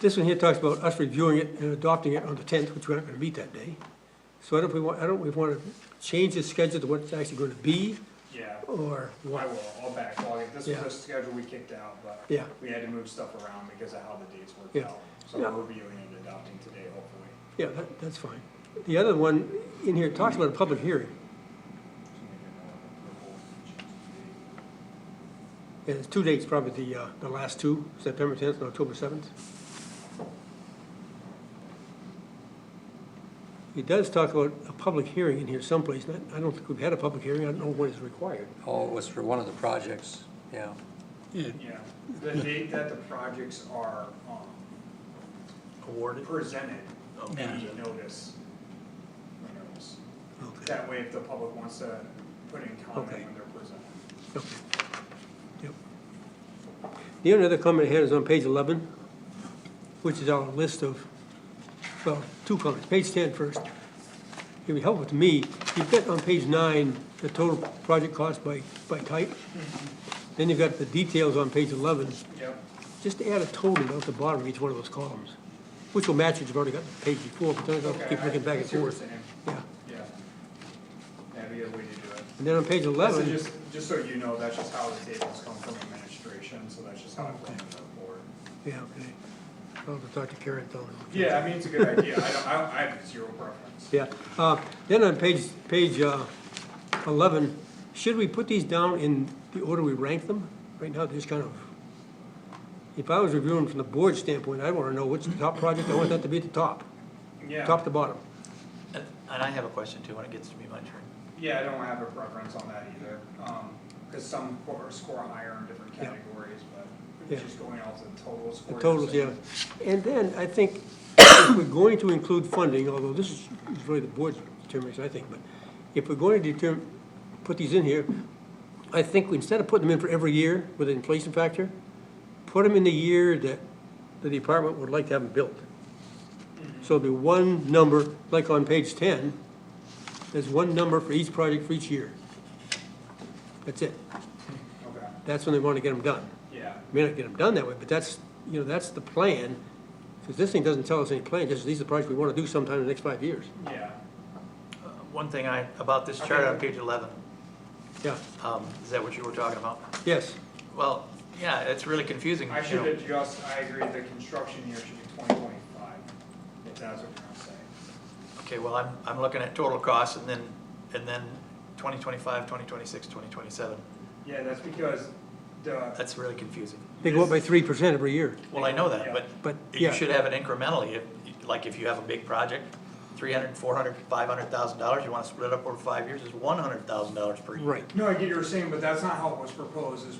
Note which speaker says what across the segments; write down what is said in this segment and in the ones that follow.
Speaker 1: This one here talks about us reviewing it and adopting it on the tenth, which we're not gonna meet that day. So I don't, know if we want, I don't, know if we wanna change the schedule to what it's actually gonna be,
Speaker 2: Yeah,
Speaker 1: or
Speaker 2: I
Speaker 1: what?
Speaker 2: will, I'll backlog it. This was
Speaker 1: Oh. Yeah.
Speaker 2: a schedule we kicked out, but
Speaker 1: Yeah,
Speaker 2: we had to move stuff around because of how the dates worked
Speaker 1: Yeah.
Speaker 2: out. So
Speaker 1: Yeah.
Speaker 2: we're reviewing and adopting today, hopefully.
Speaker 1: yeah, that, that's fine. The other one in here talks about a public hearing,
Speaker 2: So maybe I'll-
Speaker 1: and it's two dates, probably the, uh, the last two, September tenth and October seventh. It does talk about a public hearing in here someplace, and I I don't think we've had a public hearing, I don't know what is required.
Speaker 3: Oh, it was for one of the projects, yeah.
Speaker 2: Yeah, the date that the projects are, um,
Speaker 1: Awarded.
Speaker 2: presented,
Speaker 4: Yeah.
Speaker 2: the notice. renewals.
Speaker 1: Okay.
Speaker 2: That way, if the public wants to put in
Speaker 1: Okay.
Speaker 2: comment when they're presented.
Speaker 1: Yep. Yep. The only other comment I had is on page 11, which is our list of, well, two comments, page 10 first. It'd be helpful to me, you've got on page nine, the total project cost by, by type. Then you've got the details on page 11,
Speaker 2: Yep.
Speaker 1: just add a total down at the bottom of each one of those columns, which will match what you've already got the page before, but then I'll
Speaker 2: Okay,
Speaker 1: keep
Speaker 2: I-
Speaker 1: looking back
Speaker 2: I
Speaker 1: and
Speaker 2: see what you're
Speaker 1: forth.
Speaker 2: saying.
Speaker 1: Yeah,
Speaker 2: Yeah. That'd be a way to do it.
Speaker 1: and then on page
Speaker 2: So
Speaker 1: 11,
Speaker 2: just, just so you know, that's just how the tables come from administration, so that's just how I put in the report.
Speaker 1: yeah, okay. I'll have to talk to Karen, tell her.
Speaker 2: Yeah, I mean, it's a good idea. I don't, I don't, I have zero preference.
Speaker 1: Yeah, uh, then on page, page uh, eleven, should we put these down in the order we rank them? Right now, just kind of, if I was reviewing from the board standpoint, I'd wanna know which the top project, I want that to be at the top, top
Speaker 2: Yeah,
Speaker 1: to bottom.
Speaker 4: And and I have a question too, when it gets to be my turn.
Speaker 2: yeah, I don't have a preference on that either, um, cause some score, score higher in different
Speaker 1: Yeah.
Speaker 2: categories, but
Speaker 1: Yeah.
Speaker 2: just going off the total
Speaker 1: The
Speaker 2: score.
Speaker 1: totals, yeah.
Speaker 2: you're saying-
Speaker 1: And then, I think, if we're going to include funding, although this is is really the board's determination, I think, but if we're going to determine, put these in here, I think instead of putting them in for every year with an inflation factor, put them in the year that the department would like to have them built. So it'll be one number, like on page ten, there's one number for each project for each year. That's it.
Speaker 2: Okay,
Speaker 1: That's when they want to get them done
Speaker 2: yeah,
Speaker 1: may not get them done that way, but that's, you know, that's the plan, because this thing doesn't tell us any plan, just these are the projects we want to do sometime in the next five years.
Speaker 2: yeah,
Speaker 4: Uh, One thing I, about this chart on
Speaker 2: Okay.
Speaker 4: page 11,
Speaker 1: Yeah,
Speaker 4: um, is that what you were talking about?
Speaker 1: yes,
Speaker 4: Well, yeah, it's really confusing,
Speaker 2: I
Speaker 4: you
Speaker 2: should
Speaker 4: know.
Speaker 2: adjust, I agree, the construction year should be twenty twenty-five, if that's what you're gonna say.
Speaker 4: Okay, well, I'm, I'm looking at total costs and then, and then 2025, 2026, 2027.
Speaker 2: Yeah, that's because the,
Speaker 4: That's really confusing.
Speaker 1: they go up by three percent every year,
Speaker 4: Well, I know that,
Speaker 2: Yeah.
Speaker 4: but
Speaker 1: but,
Speaker 4: you
Speaker 1: yeah,
Speaker 4: should have it incrementally. If, like if you have a big project, 300, 400, 500,000 dollars, you want to split it up over five years, it's 100,000 dollars per year.
Speaker 1: right,
Speaker 2: no, I get what you're saying, but that's not how it was proposed, is,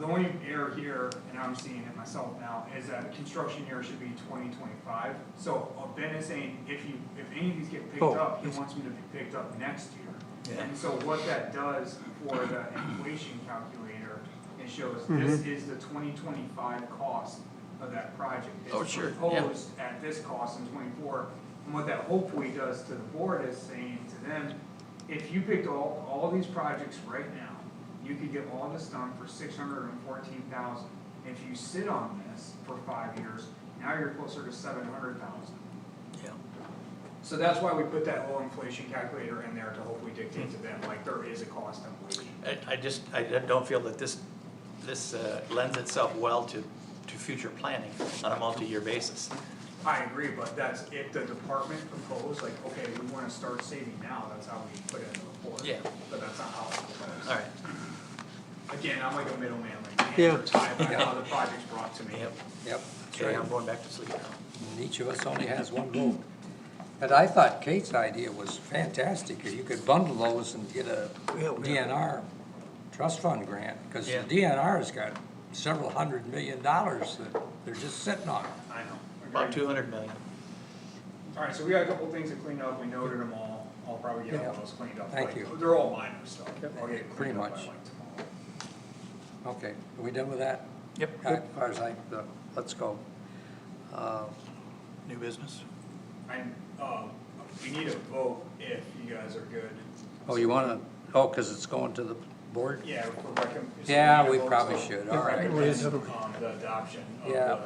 Speaker 2: the only error here, and I'm seeing it myself now, is that construction year should be twenty twenty-five. So uh, Ben is saying, if you, if any of these get picked
Speaker 1: Oh,
Speaker 2: up, he
Speaker 1: yes.
Speaker 2: wants them to be picked up next year.
Speaker 4: Yeah.
Speaker 2: And so what that does for the inflation calculator, it shows this
Speaker 1: Mm-hmm.
Speaker 2: is the twenty twenty-five cost of that project. It's
Speaker 4: Oh, sure, yeah.
Speaker 2: proposed at this cost in twenty-four. And what that hopefully does to the board is saying to them, if you picked all, all these projects right now, you could get all this done for six hundred and fourteen thousand. If you sit on this for five years, now you're closer to seven hundred thousand.
Speaker 4: Yeah.
Speaker 2: So that's why we put that whole inflation calculator in there to hopefully dictate to them, like, there is a cost inflation.
Speaker 4: I, I just, I don't feel that this, this uh, lends itself well to, to future planning on a multi-year basis.
Speaker 2: I agree, but that's if the department proposed, like, okay, we wanna start saving now, that's how we put it in the report.
Speaker 4: Yeah.
Speaker 2: But that's not how it's proposed.
Speaker 4: All right,
Speaker 2: Again, I'm like a middleman, like,
Speaker 1: Yeah.
Speaker 2: hand or tie back how the project's brought to me.
Speaker 4: yep,
Speaker 3: Yep, that's
Speaker 4: okay,
Speaker 3: right.
Speaker 4: I'm going back to sleep now.
Speaker 3: And each of us only has one vote. But I thought Kate's idea was fantastic, if you could bundle those and get a
Speaker 1: Yeah, we-
Speaker 3: DNR trust fund grant, because the
Speaker 4: Yeah.
Speaker 3: DNR's got several hundred million dollars that they're just sitting on.
Speaker 2: I know.
Speaker 4: About
Speaker 2: Agreed.
Speaker 4: two hundred million.
Speaker 2: Alright, so we got a couple things to clean up, we noted them all, I'll probably get all
Speaker 3: Yeah.
Speaker 2: those cleaned up.
Speaker 3: Thank
Speaker 2: like,
Speaker 3: you.
Speaker 2: They're all minor, so I'll
Speaker 3: Pretty
Speaker 2: get cleaned up by
Speaker 3: much.
Speaker 2: like tomorrow.
Speaker 3: Okay, are we done with that?
Speaker 4: Yep.
Speaker 3: As far as I, the- let's go. Uh,
Speaker 4: New business?
Speaker 2: And, um, we need a vote if you guys are good.
Speaker 3: Oh, you wanna, oh, because it's going to the board?
Speaker 2: Yeah, for recom. so
Speaker 3: Yeah,
Speaker 2: need a
Speaker 3: we
Speaker 2: vote
Speaker 3: probably
Speaker 2: to
Speaker 3: should, all right.
Speaker 2: recommend, Um, the adoption of
Speaker 3: Yeah.
Speaker 2: the